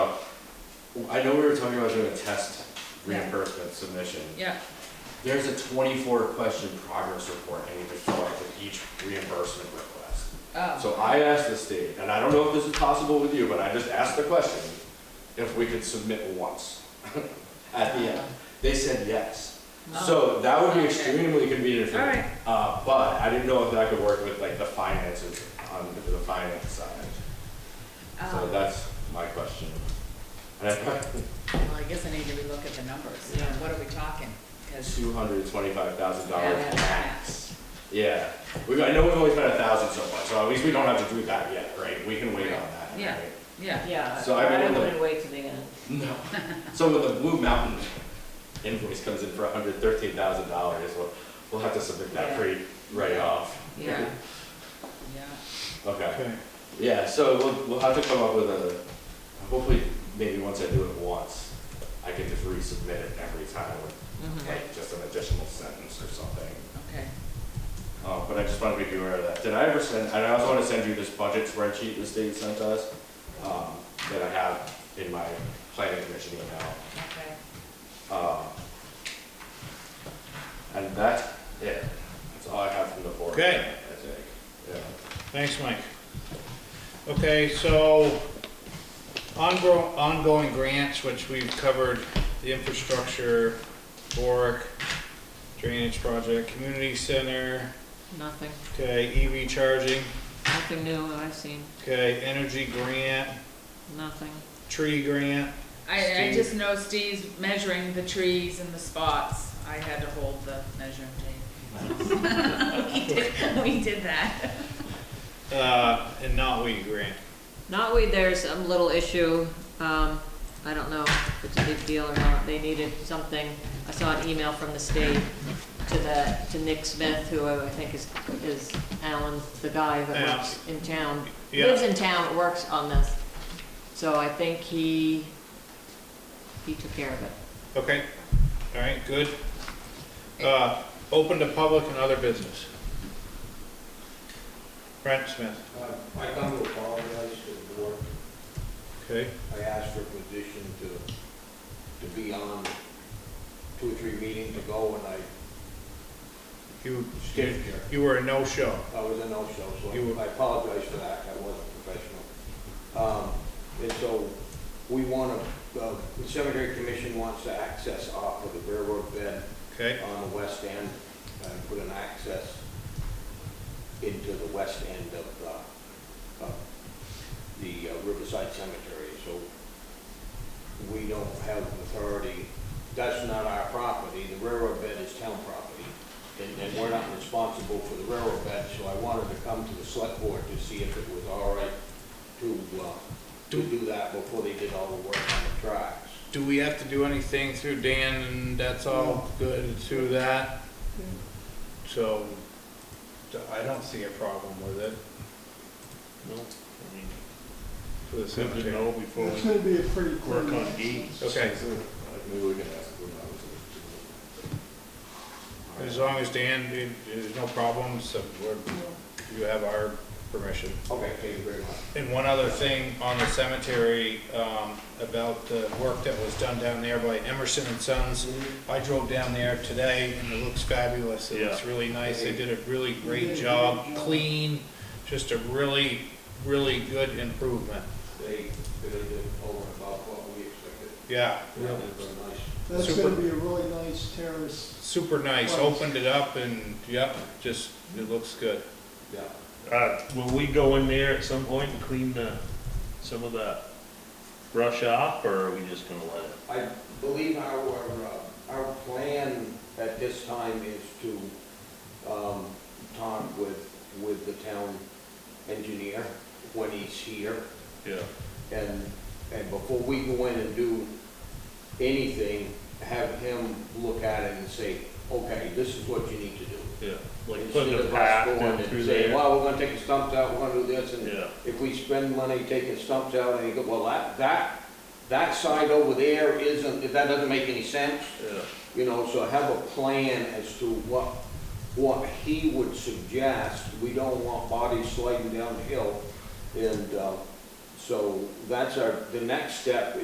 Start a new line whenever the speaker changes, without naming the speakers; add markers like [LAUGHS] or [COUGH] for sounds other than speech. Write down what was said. I know we were talking about doing a test reimbursement submission.
Yeah,
There's a twenty-four question progress report I need to fill out with each reimbursement request.
oh,
So I asked the state, and I don't know if this is possible with you, but I just asked the question, if we could submit once [LAUGHS] at the
Uh-huh.
end. They said yes. So that would be extremely convenient for me.
Alright.
Uh, but I didn't know if that could work with like the finances on the finance side. So
um,
that's my question. [LAUGHS]
well, I guess I need to relook at the numbers, you know, what are we talking? 'Cause-
Two hundred twenty-five thousand
Yeah,
dollars
that's
max. Yeah, we, I know we've only spent a thousand so far, so at least we don't have to do that yet, right? We can wait on that.
Yeah.
right?
yeah,
Yeah,
So I
I
mean,
wouldn't wait till the end.
No. [LAUGHS] So when the Blue Mountain invoice comes in for hundred thirteen thousand dollars, we'll, we'll have to submit that
Yeah.
pretty right off.
yeah, yeah,
Okay,
Okay,
yeah, so we'll, we'll have to come up with a, hopefully, maybe once I do it once, I can just resubmit it every time with
Mm-hmm.
like just an additional sentence or something.
okay.
Uh, but I just wanted to be aware of that. Did I ever send, and I also want to send you this budget spreadsheet the state sent us, um, that I have in my planning commission email.
Okay.
Um, And that's it. That's all I have from the board.
Okay.
I think. Yeah.
thanks, Mike. Okay, so ongo- ongoing grants, which we've covered, the infrastructure, Boric, drainage project, community center,
Nothing,
okay, EV charging,
nothing new that I've seen,
okay, energy grant,
nothing.
tree grant,
I, I
Steve?
just know Steve's measuring the trees and the spots, I had to hold the measuring
[LAUGHS]
tape. [LAUGHS] We did, we did that.
uh, and knotweed grant.
Knotweed, there's a little issue, um, I don't know if it's a big deal or not, they needed something. I saw an email from the state to the, to Nick Smith, who I think is, is Alan, the guy that
Yeah.
works in town.
Yeah.
Lives in town, but works on this. So I think he, he took care of it.
Okay, all right, good. Uh, open to public and other business. Brent Smith,
Uh, I come to apologize to the board.
okay,
I asked for position to, to be on two or three meetings ago and I
you,
skipped here.
you were a no-show.
I was a no-show,
You
so
were-
I apologize for that. I wasn't professional. Um, and so we want to, uh, the cemetery commission wants to access off of the railroad bed
Okay,
on the west end uh, and put an access into the west end of, uh, of the uh, Riverside Cemetery, so we don't have authority, that's not our property, the railroad bed is town property, and, and we're not responsible for the railroad bed, so I wanted to come to the select board to see if it was all right to, uh, to do that before they did all the work on the tracks.
do we have to do anything through Dan and that's all good, it's through that? So, d- I don't see a problem with it.
No, I mean,
For the
good to
cemetery.
know before
It's
we
gonna be a pretty clean.
work on deeds.
Okay,
Maybe we can ask them how it's-
as long as Dan, it- there's no problems, uh, we're, you have our permission.
Okay, thank you very much.
And one other thing on the cemetery, um, about the work that was done down there by Emerson and Sons. I drove down there today and it looks fabulous. It looks really nice. They did a really great job, clean, just a really, really good improvement.
They, they did over and above what we expected.
Yeah,
Yeah, they've been nice.
That's
Super.
gonna be a really nice terrace.
super nice. Opened it up and, yep, just, it looks good.
Yeah.
Uh, will we go in there at some point and clean the, some of that brush off, or are we just gonna let it?
I believe our, uh, our plan at this time is to um, talk with, with the town engineer when he's here.
Yeah,
And, and before we go in and do anything, have him look at it and say, okay, this is what you need to do.
yeah, like
Instead
putting a
of
path
us going
in
and
through
saying,
there.
well, we're gonna take the stumps out, we're gonna do this, and
Yeah,
if we spend money taking stumps out, and you go, well, that, that, that side over there isn't, that doesn't make any sense,
yeah,
you know, so have a plan as to what, what he would suggest. We don't want bodies um, sliding down the hill, and, uh, so that's our, the next step